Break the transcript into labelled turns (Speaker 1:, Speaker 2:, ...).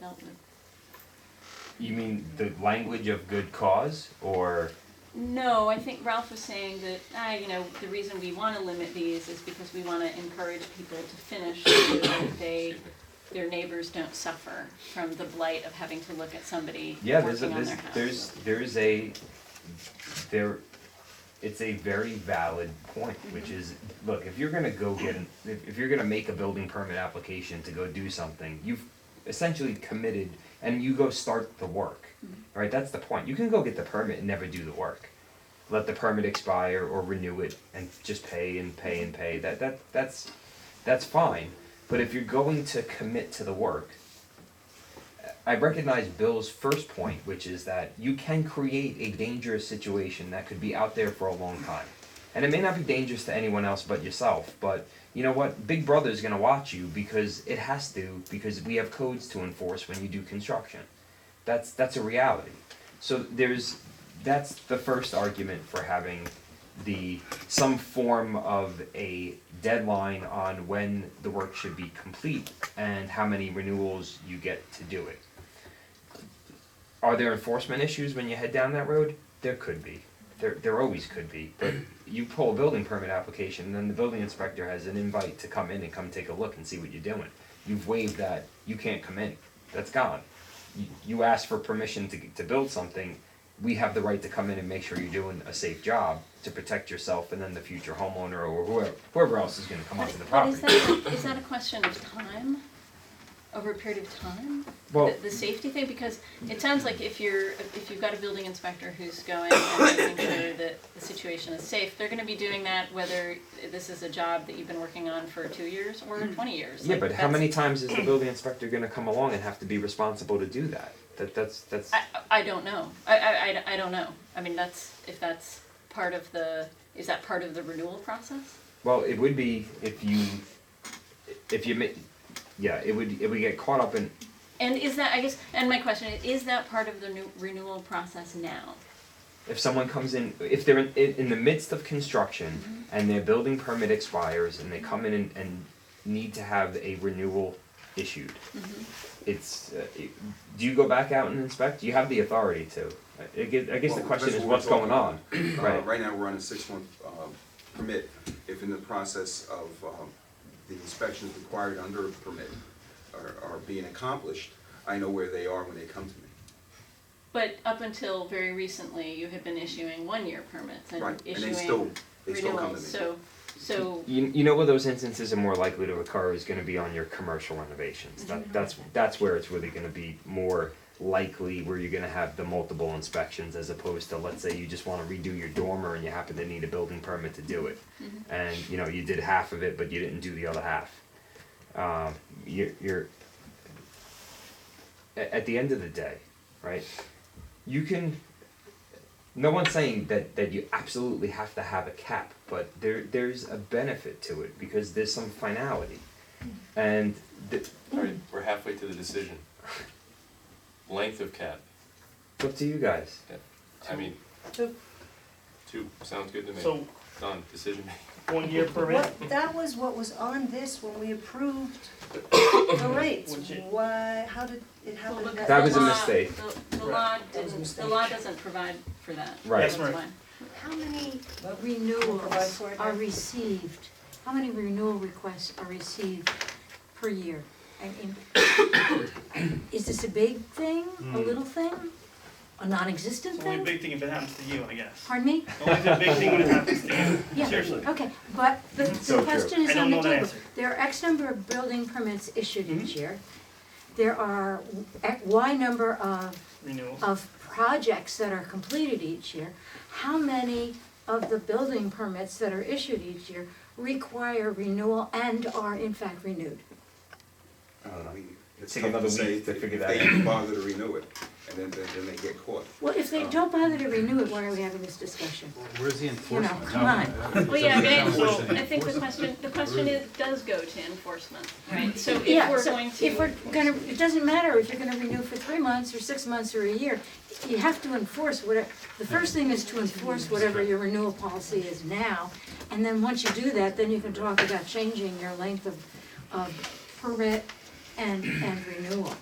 Speaker 1: dealt with.
Speaker 2: You mean the language of good cause, or
Speaker 1: No, I think Ralph was saying that, ah, you know, the reason we wanna limit these is because we wanna encourage people to finish so that they, their neighbors don't suffer from the blight of having to look at somebody
Speaker 2: yeah,
Speaker 1: working on
Speaker 2: there's a,
Speaker 1: their house.
Speaker 2: there's there's there is a there, it's a very valid point,
Speaker 1: Mm-hmm.
Speaker 2: which is look if you're gonna go get an, if, if you're gonna make a building permit application to go do something, you've essentially committed and you go start the work,
Speaker 1: Mm-hmm.
Speaker 2: right? That's the point. You can go get the permit and never do the work. Let the permit expire or renew it and just pay and pay and pay. That that that's that's fine. But if you're going to commit to the work, I recognize Bill's first point, which is that you can create a dangerous situation that could be out there for a long time. And it may not be dangerous to anyone else but yourself, but you know what? Big Brother is going to watch you because it has to, because we have codes to enforce when you do construction. That's that's a reality. So there's that's the first argument for having the some form of a deadline on when the work should be complete and how many renewals you get to do it. Are there enforcement issues when you head down that road? There could be. There there always could be. But you pull a building permit application and then the building inspector has an invite to come in and come take a look and see what you're doing. You've waived that, you can't come in. That's gone you- you ask for permission to, to build something, we have the right to come in and make sure you're doing a safe job to protect yourself and then the future homeowner or whoever, whoever else is gonna come onto the
Speaker 1: But is
Speaker 2: property.
Speaker 1: that, is that a question of time, over a period of time?
Speaker 2: Well-
Speaker 1: The, the safety thing, because it sounds like if you're, if you've got a building inspector who's going and making sure that the situation is safe, they're gonna be doing that whether this is a job that you've been working on for two years or twenty years.
Speaker 2: Mm. Yeah,
Speaker 1: Like,
Speaker 2: but how
Speaker 1: that's-
Speaker 2: many times is the building inspector gonna come along and have to be responsible to do that? That, that's, that's,
Speaker 1: I, I don't know, I, I, I, I don't know, I mean, that's, if that's part of the, is that part of the renewal process?
Speaker 2: well, it would be if you, if you ma- yeah, it would, it would get caught up in,
Speaker 1: And is that, I guess, and my question is, is that part of the new renewal process now?
Speaker 2: if someone comes in, if they're in, in, in the midst of construction and their building permit expires and they come in and, and need to have a renewal issued, it's, uh, it- do you go back out and inspect? You have the authority to. I, I guess, I guess the
Speaker 3: Well,
Speaker 2: question
Speaker 3: that's
Speaker 2: is
Speaker 3: what
Speaker 2: what's
Speaker 3: we're talking
Speaker 2: going on,
Speaker 3: Uh,
Speaker 2: right?
Speaker 3: Right now, we're on a six-month uh, permit. If in the process of um, the inspections required under a permit are are being accomplished, I know where they are when they come to me.
Speaker 1: But up until very recently, you had been issuing one-year permits and
Speaker 3: Right, and
Speaker 1: issuing
Speaker 3: they still, they still come to
Speaker 1: renewals,
Speaker 3: me.
Speaker 1: so, so,
Speaker 2: You, you know where those instances are more likely to occur is gonna be on your commercial renovations. That, that's, that's where it's really gonna be more likely where you're gonna have the multiple inspections as opposed to, let's say, you just wanna redo your dormer and you happen to need a building permit to do it. And, you know, you did half of it, but you didn't do the other half. Um, you're, you're, a- at the end of the day, right? You can no one's saying that, that you absolutely have to have a cap, but there there's a benefit to it because there's some finality. And th-
Speaker 4: All right, we're halfway to the decision. Length of cap,
Speaker 2: it's up to you guys.
Speaker 4: I mean,
Speaker 5: The-
Speaker 4: two, sounds good to me.
Speaker 6: So,
Speaker 4: Done, decision made.
Speaker 6: one year permit,
Speaker 5: What, that was what was on this when we approved the rates.
Speaker 6: Which it-
Speaker 5: Why, how did it happen?
Speaker 1: well, the,
Speaker 5: that-
Speaker 2: That
Speaker 1: the
Speaker 2: was a
Speaker 1: law-
Speaker 2: mistake.
Speaker 1: The, the
Speaker 6: Right.
Speaker 1: law
Speaker 5: That was a
Speaker 1: didn't, the
Speaker 5: mistake.
Speaker 1: law doesn't provide for that.
Speaker 2: Right.
Speaker 6: That's right.
Speaker 1: why.
Speaker 7: How many
Speaker 5: Provide
Speaker 7: renewals
Speaker 5: for it,
Speaker 7: are
Speaker 5: yeah.
Speaker 7: received? How many renewal requests are received per year? I mean, is this a big thing, a little thing, a non-existent
Speaker 6: Hmm. it's only a
Speaker 7: thing?
Speaker 6: big thing if it happens to you, I guess.
Speaker 7: Pardon me?
Speaker 6: Only a big thing when it happens to you,
Speaker 7: Yeah.
Speaker 6: seriously.
Speaker 7: Okay, but the,
Speaker 2: So
Speaker 7: the
Speaker 2: true.
Speaker 7: question
Speaker 6: I
Speaker 7: is
Speaker 6: don't
Speaker 7: on the
Speaker 6: know the
Speaker 7: table.
Speaker 6: answer. Hmm?
Speaker 7: There are X number of building permits issued each year. There are X- Y number of
Speaker 6: Renewals.
Speaker 7: of projects that are completed each year, how many of the building permits that are issued each year require renewal and are in fact renewed?
Speaker 3: Uh, we- It's
Speaker 2: Take
Speaker 3: tough
Speaker 2: another
Speaker 3: to say
Speaker 2: week to
Speaker 3: if-
Speaker 2: figure
Speaker 3: if
Speaker 2: that
Speaker 3: They
Speaker 2: out.
Speaker 3: even bother to renew it, and then, then then they get caught.
Speaker 7: Well, if they don't bother to renew it, why are we having this discussion?
Speaker 8: Where's the
Speaker 7: You know,
Speaker 8: enforcement?
Speaker 7: come on.
Speaker 1: Well, yeah, I mean, I- so
Speaker 6: Enforcement.
Speaker 1: I think the question, the question is, does go to enforcement, right? So if
Speaker 7: Yeah,
Speaker 1: we're
Speaker 7: so
Speaker 1: going to.
Speaker 7: if we're gonna, it doesn't matter if you're gonna renew for three months or six months or a year, you have to enforce whatever, the first thing is to enforce whatever your renewal policy is now. And then once you do that, then you can talk about changing your length of, of permit and, and renewal.